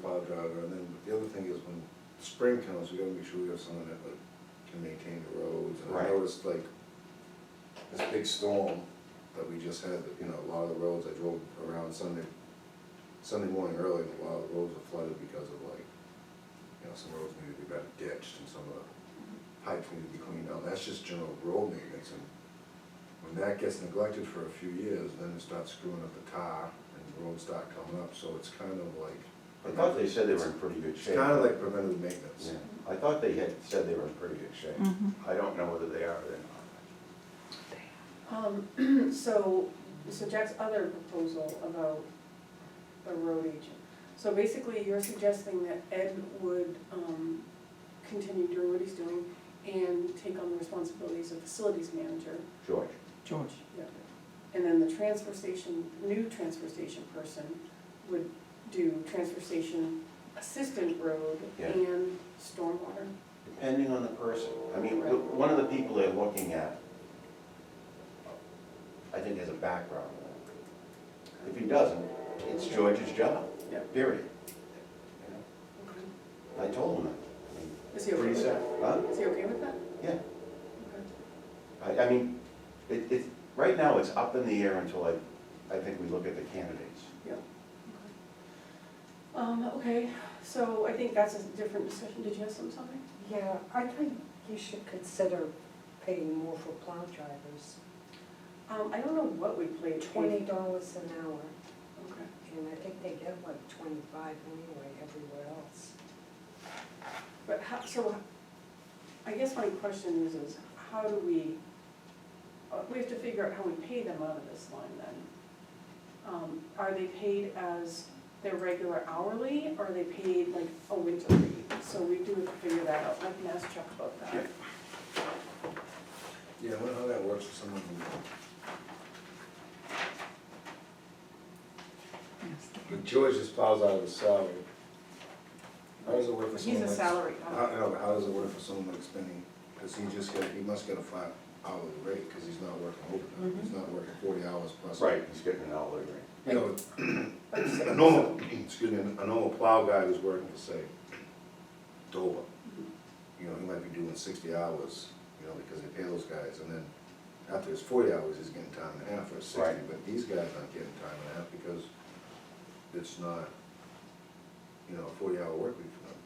plow driver, and then the other thing is when spring comes, we gotta make sure we have someone that like can maintain the roads. And I Right. noticed like this big storm that we just had, you know, a lot of the roads, I drove around Sunday, Sunday morning early, and a lot of the roads were flooded because of like, you know, some roads needed to be better ditched and some of the pipes need to be cleaned out, that's just general road maintenance, and when that gets neglected for a few years, then it starts screwing up the tar, and the roads start coming up, so it's kind of like. I thought they said they were in pretty good It's shape. kind of like preventive maintenance. Yeah, I thought they had said they were in pretty good shape. Mhm. I don't know whether they are or they're Um, so, so Jack's other proposal about the road agent. So basically, you're suggesting that Ed would, um, continue doing what he's doing and take on the responsibilities of facilities manager. not. George, George, Yeah. And then the transfer station, new transfer station person would do transfer station assistant road Yeah. and stormwater. depending on the person, I mean, the- one of the people they're looking at, I think has a background. If he doesn't, it's George's job, Yeah. period. You know, I told him that. I mean, Is he okay Pretty with sad, that? huh? Is he okay with that? Yeah. Okay. I, I mean, it, it, right now, it's up in the air until I, I think we look at the candidates. Um, okay, so I think that's a different discussion, did you have some- something? Yeah, I think you should consider paying more for plow drivers, Um, I don't know what we played. twenty dollars an hour, Okay, and I think they get like twenty-five anyway everywhere else. but how, so, I guess my question is, is how do we, uh, we have to figure out how we pay them out of this line then. Um, are they paid as their regular hourly, or are they paid like a winter rate? So we do have to figure that out, I can ask Chuck about that. Yeah, I wonder how that works for someone who, yes. but George just plows out of his salary. How does it work for He's someone a like? salary How, guy. I know, but how does it work for someone like spending, because he just got, he must get a flat hourly rate, because he's not working overtime, Mm-hmm. he's not working forty hours plus. He's getting an hourly rate. You know, a normal, excuse me, a normal plow guy who's working for, say, Dover, you know, he might be doing sixty hours, you know, because they pay those guys, and then after his forty hours, he's getting time and a half or sixty, Right. but these guys aren't getting time and a half because it's not, you know, a forty-hour work week for them,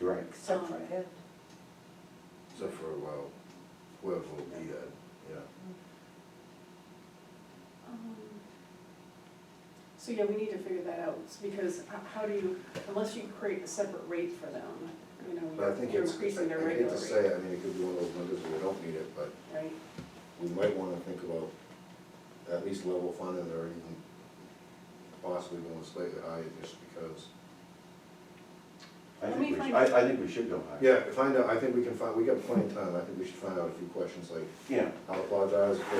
You're right. Except for Um, Ed, except for, well, whoever will be that, yeah. Um, So, yeah, we need to figure that out, s- because h- how do you, unless you create a separate rate for them, you But I know, think you're it's, increasing their I hate regular to say, rate, I mean, it could be one of those windows where we don't need it, but right? we might wanna think about at least level funding or even possibly going slightly higher just because. I Let think me we, find I, out. I think we should go higher. Yeah, find out, I think we can find, we got plenty of time, I think we should find out a few questions like, Yeah, I'll apologize for,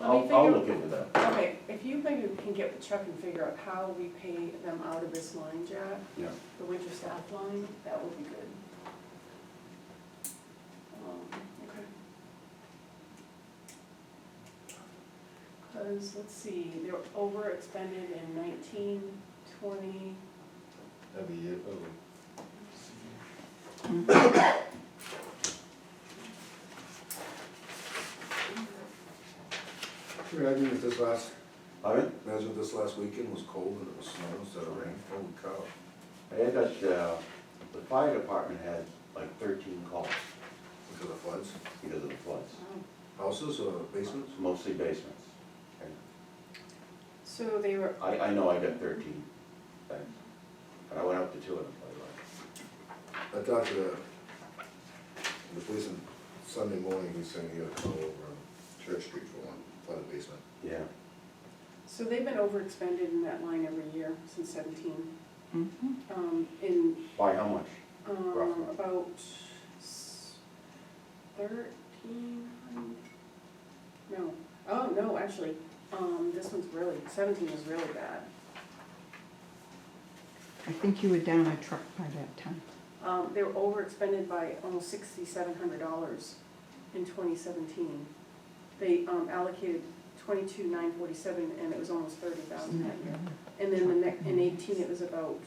Let me I'll, I'll figure- look into that, Okay, if you maybe can get with Chuck and figure out how we pay them out of this line, Jack, yeah. the winter staff line, that would be good. Um, okay. Cause, let's see, they're over expended in nineteen, twenty, every year, probably. Can you Imagine if this last, All right, imagine if this last weekend was cold and it was snow instead of rain, holy cow. I had that, uh, the fire department had like thirteen calls Because of floods, because of the floods, wow. houses or basements? mostly basements. So they were, I, I know I got thirteen, thanks, and I went up to two of them, by I the way. talked to the, the policeman Sunday morning, he said he had a call over on Church Street for one, flooded basement. Yeah, so they've been overexpended in that line every year since seventeen. Mhm. Um, in, by how much? um, Roughly. about s- thirteen hundred? No, oh, no, actually, um, this one's really, seventeen is really bad. I think you were down a truck by that time. Um, they were overexpended by almost sixty-seven hundred dollars in twenty seventeen. They, um, allocated twenty-two nine forty-seven and it was almost thirty thousand that year. And then the next, in eighteen, it was about